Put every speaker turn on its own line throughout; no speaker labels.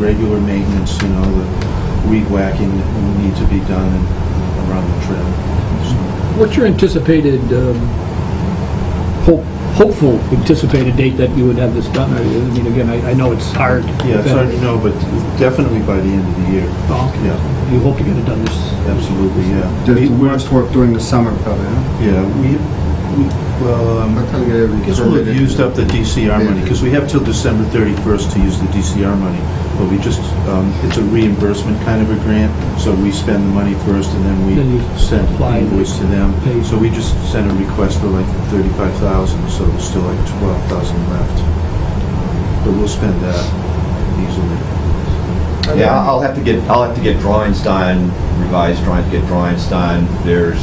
regular maintenance, you know, the weed whacking that will need to be done and around the trail.
What's your anticipated, um, hope- hopeful anticipated date that you would have this done? I mean, again, I I know it's hard.
So, Yeah, it's hard to know, but definitely by the end of the year.
Oh, okay.
Yeah,
You hope to get it done this,
absolutely, yeah.
There's the
We-
worst work during the summer probably, huh?
Yeah, we, we- well, um,
By the time you get everything
I guess we'll have
permitted.
used up the DCR money,
Yeah.
because we have till December 31st to use the DCR money, but we just, um, it's a reimbursement kind of a grant, so we spend the money first, and then
Then
we
you
send
apply and
invoice to
pay.
them. So we just sent a request for like 35,000, so there's still like 12,000 left. But we'll spend that easily.
Yeah, I'll I'll have to get, I'll have to get drawings done, revised drawings, get drawings done. There's,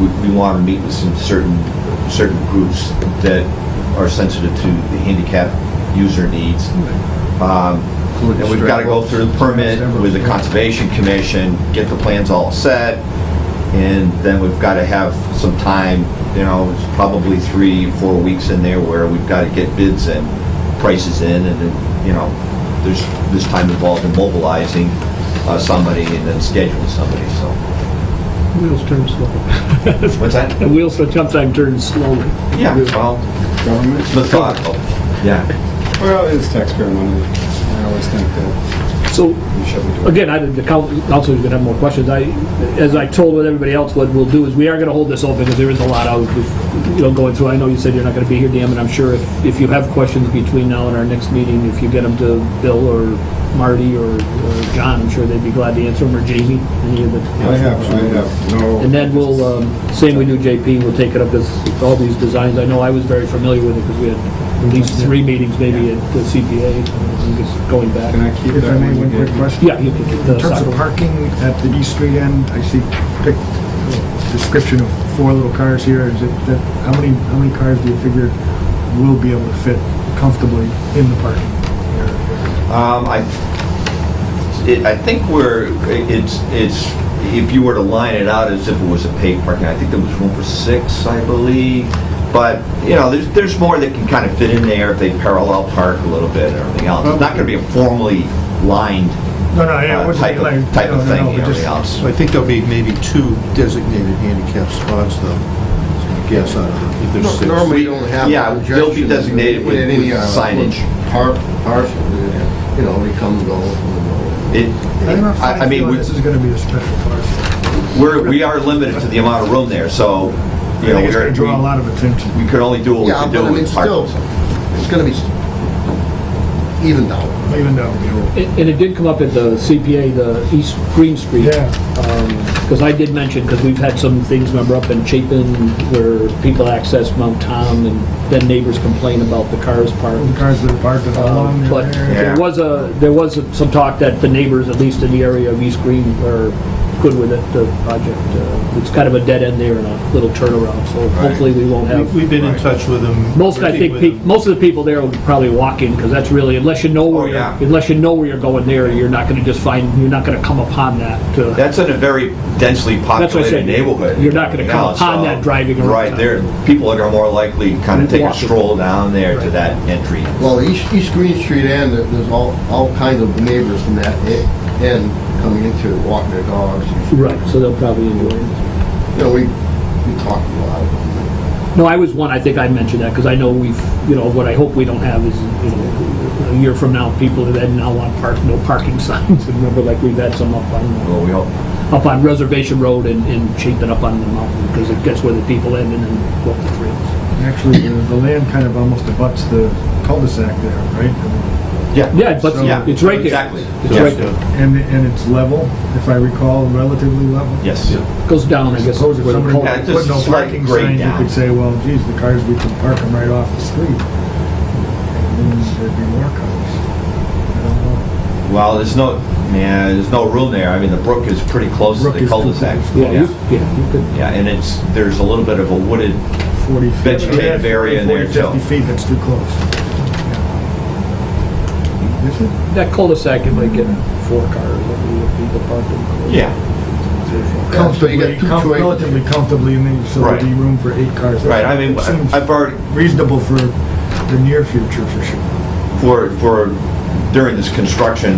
we- we want to meet with some certain, certain groups that are sensitive to the handicap user needs. Um, And we've got to go through the permit with the Conservation Commission, get the plans all set, and then we've got to have some time, you know, it's probably three, four weeks in there where we've got to get bids and prices in, and then, you know, there's this time involved in mobilizing uh, somebody and then scheduling somebody, so.
wheels turn slow.
What's that?
The wheels sometimes turn slowly.
Yeah, well,
Government?
methodical, yeah.
Well, it is taxpayer money. I always think that
So,
we should be doing it.
again, I, the coun- council's gonna have more questions. I, as I told with everybody else, what we'll do is, we are gonna hold this open, because there is a lot out, you know, going through. I know you said you're not gonna be here, Dan, and I'm sure if, if you have questions between now and our next meeting, if you get them to Bill or Marty or, or John, I'm sure they'd be glad to answer them, or Jamie, any of the...
I have, I have no...
And then we'll, um, same we do JP, we'll take it up as all these designs. I know I was very familiar with it because we had at least three meetings maybe at the CPA, and just going back.
Can I keep
If I
that?
may, one quick question.
Yeah, you can keep the
In terms of
soccer.
parking at the D Street end, I see pic- description of four little cars here. Is it, that, how many, how many cars do you figure will be able to fit comfortably in the parking area?
Um, I, it, I think we're, it's, it's, if you were to line it out as if it was a paid parking, I think there was room for six, I believe. But, you know, there's, there's more that can kind of fit in there if they parallel park a little bit and everything else. It's not gonna be a formally lined
No, no, yeah, it
uh,
wasn't
type
like...
of, type
no,
of
no,
thing
no,
and
just-
everything else.
So I think there'll be maybe two designated handicap spots, though, I guess, I don't know, if there's six.
Normally, you don't have.
Yeah, they'll be designated with-
In any,
with
uh,
signage.
Par, partial, you know, they come and go. come and
It,
I don't know if
I I
I
mean,
feel
we-
this is gonna be a special parcel.
we're, we are limited to the amount of room there, so,
I
you know,
think it's
we're,
gonna draw a lot of attention.
we could only do
go.
what we
Yeah,
could
but
do
I mean,
with
still,
parking.
it's gonna be s- evened out.
Even though, you know,
And and it did come up at the CPA, the East Green Street.
Yeah.
Because I did mention, because we've had some things, remember, up in Chapin where people access Mount Tom and then neighbors complain about the cars
the
parked.
cars that are parked along
Um, But
there.
there
Yeah.
was a, there was some talk that the neighbors, at least in the area of East Green, are good with it, the project. uh, It's kind of a dead end there and a little turnaround, so hopefully we won't have.
We- We've been in touch with them.
Most, I
working
think,
with
pe-
them.
most of the people there will probably walk in, because that's really, unless you know
Oh,
where,
yeah.
you're- unless you know where you're going there, you're not gonna just find, you're not gonna come upon that uh, to,
That's in a very densely
That's what I said.
populated neighborhood.
You're not gonna come
Yeah,
upon
so-
that driving around.
Right, there, people are more likely to kind of take a
Walking.
stroll down there to that entry.
Well, East, East Green Street end, there- there's all, all kinds of neighbors from that e- end coming into it, walking their dogs.
right, so they'll probably enjoy it.
You know, we, we talked a lot.
No, I was one, I think I mentioned that, because I know we've, you know, what I hope we don't have is, you know, a year from now, people that now want park, no parking signs, and remember, like, we've had some up on,
Well, we hope,
up on Reservation Road and, and Chapin up on the mountain, because it gets where the people end and then go up the trails.
Actually, the the land kind of almost abuts the cul-de-sac there, right? I mean,
yeah.
Yeah, but
Yeah,
it's right there.
Exactly.
It's
Yeah.
right there.
And, and it's level, if I recall, relatively level?
Yes.
Goes down, I guess.
Suppose if
where the
somebody
culvert-
Yeah, just
put no
slight
parking
grade
signs, you
down.
could say, well, geez, the cars, we can park them right off the street. And then there'd be more cars. I don't know.
Well, there's no, yeah, there's no room there. I mean, the brook is pretty close to
Brook
the
is too
cul-de-sac.
close.
Yeah, you, yeah, you could,
Yeah, and it's, there's a little bit of a wooded,
40 feet.
Vegetative
Yeah,
area in
40,
there, too.
50 feet, that's too close. Yeah. Is it?
that cul-de-sac, it might get four cars, I mean, if people parked in.
yeah.
Yeah, so you
Comfortably,
got two
com-
choices.
relatively comfortably, and then, so there'd be
Right.
room for eight cars.
Right, I mean,
Seems
I've already,
Reasonable for the near future, for sure.
for, for, during this construction,